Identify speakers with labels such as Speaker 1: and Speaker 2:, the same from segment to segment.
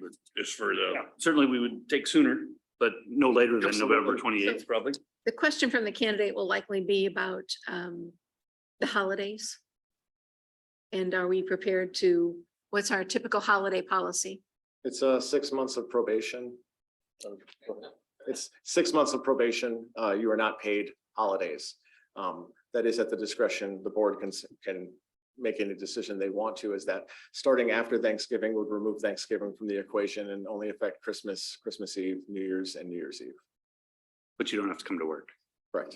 Speaker 1: but just for the,
Speaker 2: Yeah, Certainly, we would take sooner, but no later than November
Speaker 1: Absolutely.
Speaker 2: twenty eighth, probably.
Speaker 3: The question from the candidate will likely be about um the holidays. And are we prepared to, what's our typical holiday policy?
Speaker 4: It's uh six months of probation. Um, It's six months of probation. Uh, you are not paid holidays. Um, that is at the discretion, the board can s- can make any decision they want to is that starting after Thanksgiving would remove Thanksgiving from the equation and only affect Christmas, Christmas Eve, New Year's and New Year's Eve.
Speaker 2: But you don't have to come to work.
Speaker 4: Right.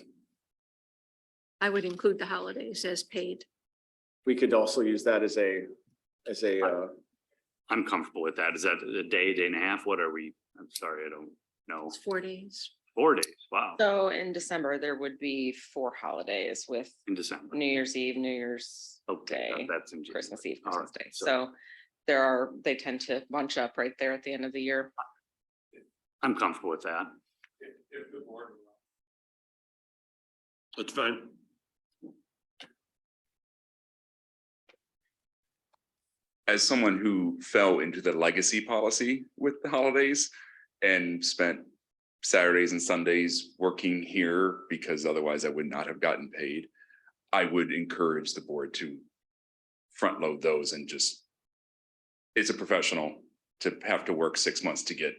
Speaker 3: I would include the holidays as paid.
Speaker 4: We could also use that as a, as a, uh,
Speaker 2: I'm comfortable with that. Is that a day, day and a half? What are we? I'm sorry, I don't know.
Speaker 3: It's four days.
Speaker 2: Four days. Wow,
Speaker 5: So in December, there would be four holidays with
Speaker 2: in December.
Speaker 5: New Year's Eve, New Year's
Speaker 2: Okay,
Speaker 5: Day,
Speaker 2: that- that's in. January.
Speaker 5: Christmas Eve,
Speaker 2: All
Speaker 5: Christmas
Speaker 2: right,
Speaker 5: Day. So there are, they tend to bunch up right there at the end of the year.
Speaker 2: I'm comfortable with that.
Speaker 1: that's fine.
Speaker 6: as someone who fell into the legacy policy with the holidays and spent Saturdays and Sundays working here because otherwise I would not have gotten paid, I would encourage the board to front load those and just it's a professional to have to work six months to get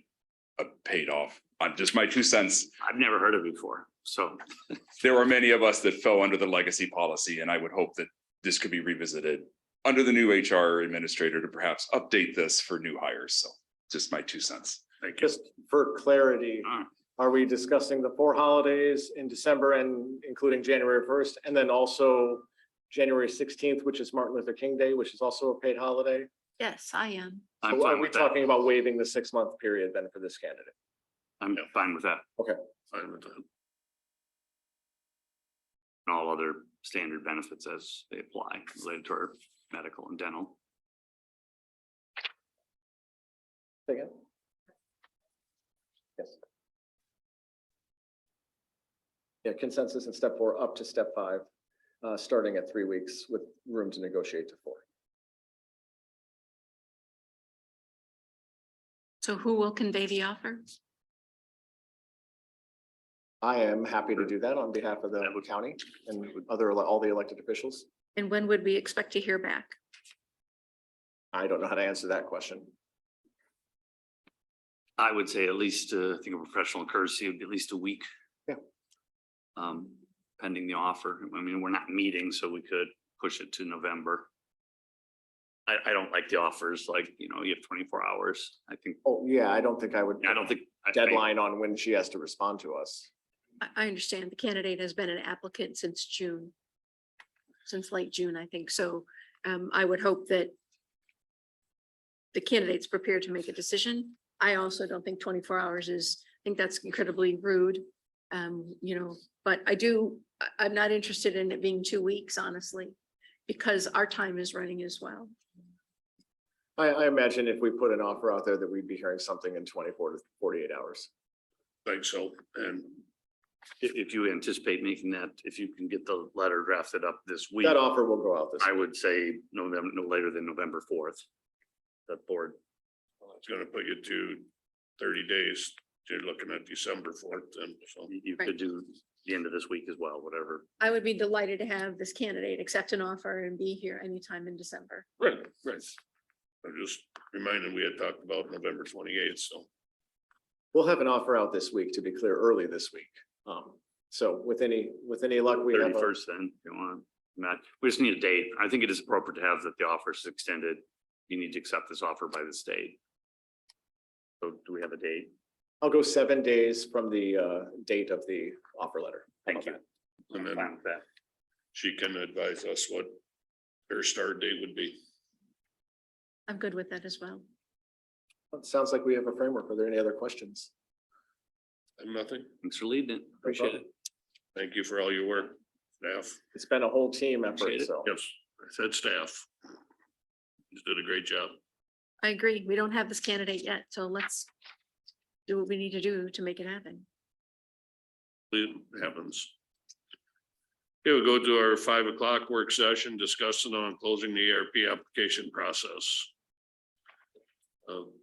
Speaker 6: a paid off. I'm just my two cents.
Speaker 2: I've never heard of it before, so
Speaker 6: There were many of us that fell under the legacy policy, and I would hope that this could be revisited under the new HR administrator to perhaps update this for new hires. So just my two cents.
Speaker 2: thank you.
Speaker 4: just for clarity.
Speaker 2: All right.
Speaker 4: Are we discussing the four holidays in December and including January first, and then also January sixteenth, which is Martin Luther King Day, which is also a paid holiday?
Speaker 3: Yes, I am.
Speaker 2: I'm
Speaker 4: So Are
Speaker 2: fine
Speaker 4: we
Speaker 2: with that.
Speaker 4: talking about waiving the six-month period then for this candidate?
Speaker 2: I'm fine with that.
Speaker 1: Fine with that.
Speaker 2: And all other standard benefits as they apply related to our medical and dental.
Speaker 4: Say Again? Yes. Yeah, consensus in step four up to step five, uh, starting at three weeks with room to negotiate to four.
Speaker 3: So who will convey the offer?
Speaker 4: I am happy to do that on behalf of the
Speaker 2: That would-
Speaker 4: county and other, all the elected officials.
Speaker 3: And when would we expect to hear back?
Speaker 4: I don't know how to answer that question.
Speaker 2: I would say at least, uh, I think a professional courtesy would be at least a week.
Speaker 4: Yeah.
Speaker 2: Um, pending the offer. I mean, we're not meeting, so we could push it to November. I, I don't like the offers, like, you know, you have twenty-four hours. I think,
Speaker 4: Oh, yeah, I don't think I would.
Speaker 2: I don't think. I- I-
Speaker 4: Deadline on when she has to respond to us.
Speaker 3: I I understand the candidate has been an applicant since June. Since late June, I think. So um I would hope that the candidate's prepared to make a decision. I also don't think twenty-four hours is, I think that's incredibly rude. Um, you know, but I do, I- I'm not interested in it being two weeks, honestly, because our time is running as well.
Speaker 4: I, I imagine if we put an offer out there that we'd be hearing something in twenty-four to forty-eight hours.
Speaker 1: Think so, and
Speaker 2: If, if you anticipate making that, if you can get the letter drafted up this week,
Speaker 4: That offer will go out this.
Speaker 2: I would say November, no later than November fourth. The board,
Speaker 1: it's gonna put you to thirty days. You're looking at December fourth then, so.
Speaker 2: you- you
Speaker 3: Right.
Speaker 2: could do the end of this week as well, whatever.
Speaker 3: I would be delighted to have this candidate accept an offer and be here anytime in December.
Speaker 1: Right, right. I'm just reminding, we had talked about November twenty-eighth, so.
Speaker 4: We'll have an offer out this week, to be clear, early this week. Um, so with any, with any luck, we have. a-
Speaker 2: Thirty-first then, if you want, Matt, we just need a date. I think it is appropriate to have that the offer is extended. You need to accept this offer by the state. So do we have a date?
Speaker 4: I'll go seven days from the, uh, date of the offer letter. How about
Speaker 2: Thank you.
Speaker 4: that?
Speaker 1: And then
Speaker 2: Fine with that.
Speaker 1: she can advise us what her start date would be.
Speaker 3: I'm good with that as well.
Speaker 4: Well, it Sounds like we have a framework. Are there any other questions?
Speaker 1: And nothing.
Speaker 2: Thanks for leading it.
Speaker 4: Appreciate it.
Speaker 1: Thank you for all your work, staff.
Speaker 4: It's been a whole team effort,
Speaker 2: Appreciate it.
Speaker 4: so.
Speaker 1: Yes, I said staff. You did a great job.
Speaker 3: I agree. We don't have this candidate yet, so let's do what we need to do to make it happen.
Speaker 1: It happens. Okay, we go to our five o'clock work session E discussing on closing the ARP application process. Uh,